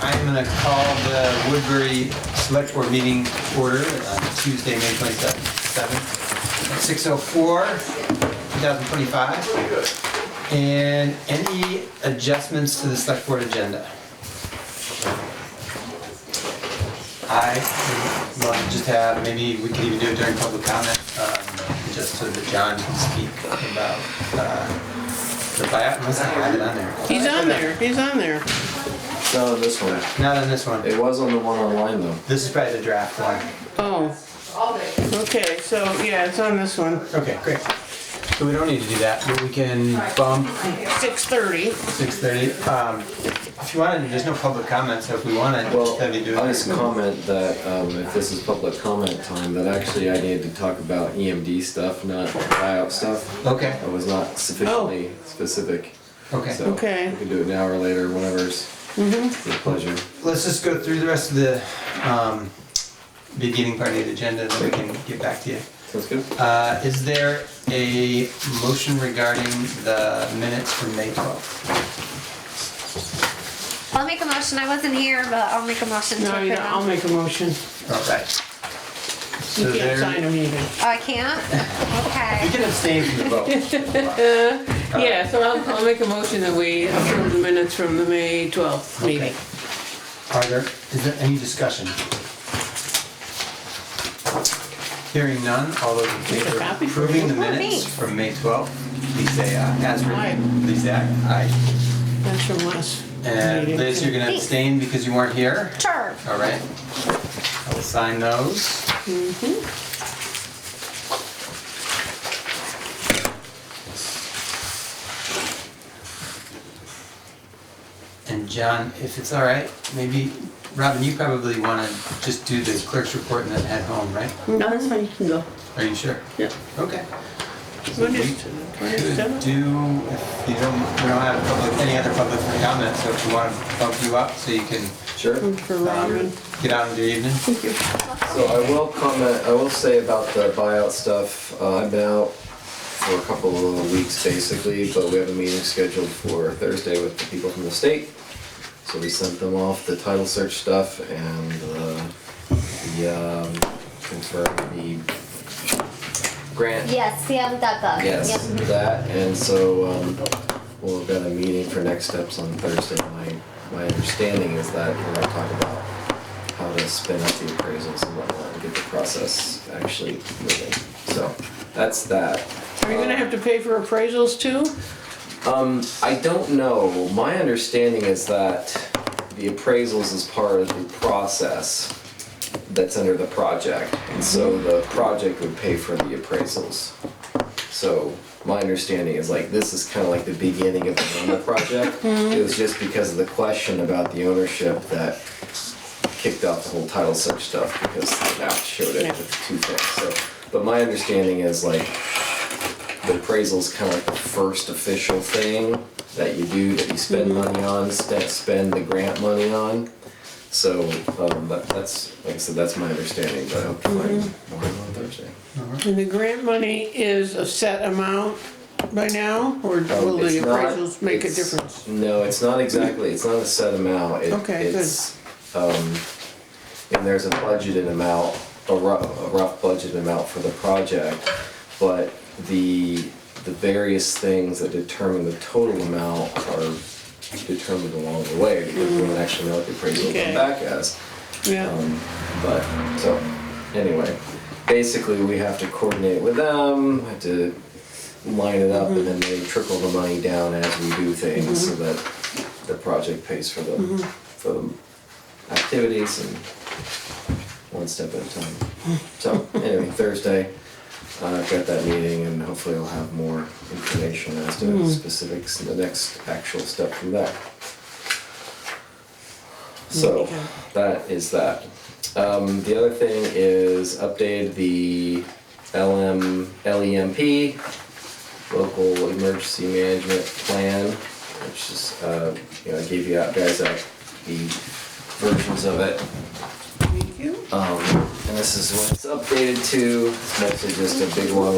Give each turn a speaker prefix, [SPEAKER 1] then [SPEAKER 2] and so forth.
[SPEAKER 1] I'm going to call the Woodbury Select Board meeting order on Tuesday, May 27th, at 6:04, 2025. And any adjustments to the Select Board agenda? I would love to just have, maybe we could even do it during public comment, um, just so that John can speak about uh, the buyout, unless I have it on there.
[SPEAKER 2] He's on there, he's on there.
[SPEAKER 3] No, this one.
[SPEAKER 1] Not on this one.
[SPEAKER 3] It was on the one online though.
[SPEAKER 1] This is probably the draft one.
[SPEAKER 2] Oh, okay, so, yeah, it's on this one,
[SPEAKER 1] Okay, great. So we don't need to do that, but we can bump
[SPEAKER 2] six thirty.
[SPEAKER 1] six thirty. Um, if you wanted, there's no public comment, so if we wanted,
[SPEAKER 3] Well,
[SPEAKER 1] just have you do
[SPEAKER 3] I just
[SPEAKER 1] it.
[SPEAKER 3] comment that um, if this is public comment time, that actually I needed to talk about EMD stuff, not buyout stuff.
[SPEAKER 1] Okay,
[SPEAKER 3] I was not sufficiently specific.
[SPEAKER 1] okay.
[SPEAKER 3] So
[SPEAKER 2] Okay.
[SPEAKER 3] we can do it now or later, whenever's your pleasure.
[SPEAKER 1] Let's just go through the rest of the, um, beginning part of the agenda, then we can get back to you.
[SPEAKER 3] Sounds good.
[SPEAKER 1] Uh, is there a motion regarding the minutes from May twelfth?
[SPEAKER 4] I'll make a motion. I wasn't here, but I'll make a motion to
[SPEAKER 2] No, you
[SPEAKER 4] approve
[SPEAKER 2] don't, I'll
[SPEAKER 4] them.
[SPEAKER 2] make a motion.
[SPEAKER 1] All right. So
[SPEAKER 2] You can't
[SPEAKER 1] there-
[SPEAKER 2] sign them either.
[SPEAKER 4] Oh, I can't?
[SPEAKER 1] You
[SPEAKER 4] Okay.
[SPEAKER 1] can abstain from the vote.
[SPEAKER 2] Yeah, so I'll, I'll make a motion that we approve the minutes from the May twelfth meeting.
[SPEAKER 1] Are there, is there any discussion? Hearing none, all those in favor of
[SPEAKER 2] copy.
[SPEAKER 1] approving the
[SPEAKER 4] Oh,
[SPEAKER 1] minutes
[SPEAKER 4] thanks.
[SPEAKER 1] from May 12th, please say aye. As written,
[SPEAKER 2] Aye.
[SPEAKER 1] please say aye. Aye.
[SPEAKER 2] That's from last
[SPEAKER 1] And
[SPEAKER 2] meeting.
[SPEAKER 1] Liz, you're gonna
[SPEAKER 4] Thanks.
[SPEAKER 1] abstain because you weren't here,
[SPEAKER 4] Sure.
[SPEAKER 1] all right? I will sign those. Mm-hmm. And John, if it's all right, maybe, Robin, you probably wanna just do the clerk's report and then head home, right?
[SPEAKER 5] No, that's fine, you can go.
[SPEAKER 1] Are you sure?
[SPEAKER 5] Yeah.
[SPEAKER 1] Okay.
[SPEAKER 2] What is it,
[SPEAKER 1] Could do, if
[SPEAKER 2] 27?
[SPEAKER 1] you don't, we don't have public, any other public comment, so if you wanna bump you up so you can um,
[SPEAKER 3] Sure.
[SPEAKER 2] For Robin.
[SPEAKER 1] get out into your evening.
[SPEAKER 3] So I will comment, I will say about the buyout stuff, uh, I've been out for a couple of weeks basically, but we have a meeting scheduled for Thursday with the people from the state. So we sent them off the title search stuff and, uh, the, um, confirmed the grant.
[SPEAKER 4] Yes, CM.gov.
[SPEAKER 3] Yes,
[SPEAKER 4] Yep.
[SPEAKER 3] that, and so, um, we'll have got a meeting for next steps on Thursday. My, my understanding is that we're gonna talk about how to spin up the appraisals and whatnot and get the process actually moving. So, that's that.
[SPEAKER 2] Are you gonna have to pay for appraisals too?
[SPEAKER 3] Um, I don't know, my understanding is that the appraisals is part of the process that's under the project, and so the project would pay for the appraisals. So my understanding is like this is kind of like the beginning of the Roma project. It was just because of the question about the ownership that kicked off the whole title search stuff because the map showed it with two things. So, but my understanding is like the appraisal's kind of like the first official thing that you do that you spend money on, st- spend the grant money on. So um, that, that's like I said, that's my understanding. But I hope to find more on Thursday.
[SPEAKER 2] And the grant money is a set amount by now, or
[SPEAKER 3] Um,
[SPEAKER 2] will the
[SPEAKER 3] it's not-
[SPEAKER 2] appraisals make a
[SPEAKER 3] it's-
[SPEAKER 2] difference?
[SPEAKER 3] No, it's not exactly, it's not a set amount, it,
[SPEAKER 2] Okay, good.
[SPEAKER 3] it's, um, and there's a budgeted amount, a rough, a rough budget amount for the project, but the, the various things that determine the total amount are determined along the way, because we don't actually know what the appraisal will
[SPEAKER 2] Okay.
[SPEAKER 3] come back as.
[SPEAKER 2] Yeah,
[SPEAKER 3] Um, but so anyway, basically we have to coordinate with them, have to line it up, and then they trickle the money down as we do things so that the project pays for the for the activities and one step at a time. So anyway, Thursday. Uh, I've got that meeting, and hopefully, I'll have more information as to specifics and the next actual step from that. So that is that. Um, the other thing is update the LM, LEMP, E local emergency management plan, which is, uh, you know, I gave you out guys out the versions of it.
[SPEAKER 2] thank you.
[SPEAKER 3] Um, and this is what it's updated to. It's mostly just a big long